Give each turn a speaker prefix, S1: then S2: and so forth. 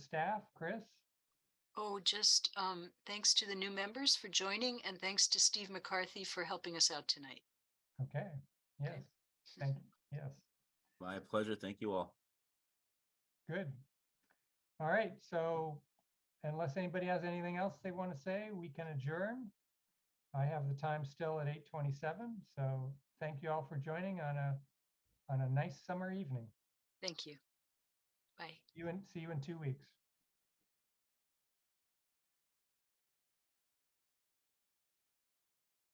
S1: staff, Chris?
S2: Oh, just um, thanks to the new members for joining and thanks to Steve McCarthy for helping us out tonight.
S1: Okay, yes, thank, yes,
S3: My pleasure. Thank you all.
S1: good. All right, so unless anybody has anything else they want to say, we can adjourn. I have the time still at eight twenty-seven, so thank you all for joining on a, on a nice summer evening.
S2: Thank you. Bye.
S1: You and, see you in two weeks.